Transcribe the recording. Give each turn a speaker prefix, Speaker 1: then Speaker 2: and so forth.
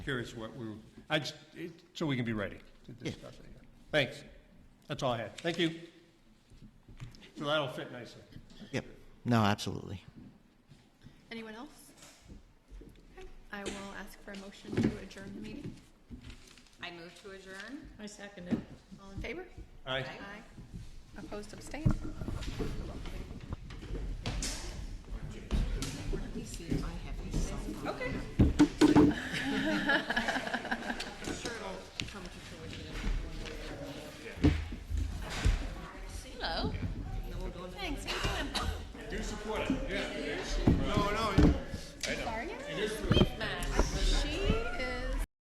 Speaker 1: curious what we, were- I just, it- so we can be ready to discuss it. Thanks. That's all I had. Thank you. So that'll fit nicely.
Speaker 2: Yep. No, absolutely.
Speaker 3: Anyone else? Okay, I will ask for a motion to adjourn the meeting.
Speaker 4: I move to adjourn.
Speaker 5: I second it.
Speaker 3: All in favor?
Speaker 1: Aye.
Speaker 3: Aye. Opposed, abstained?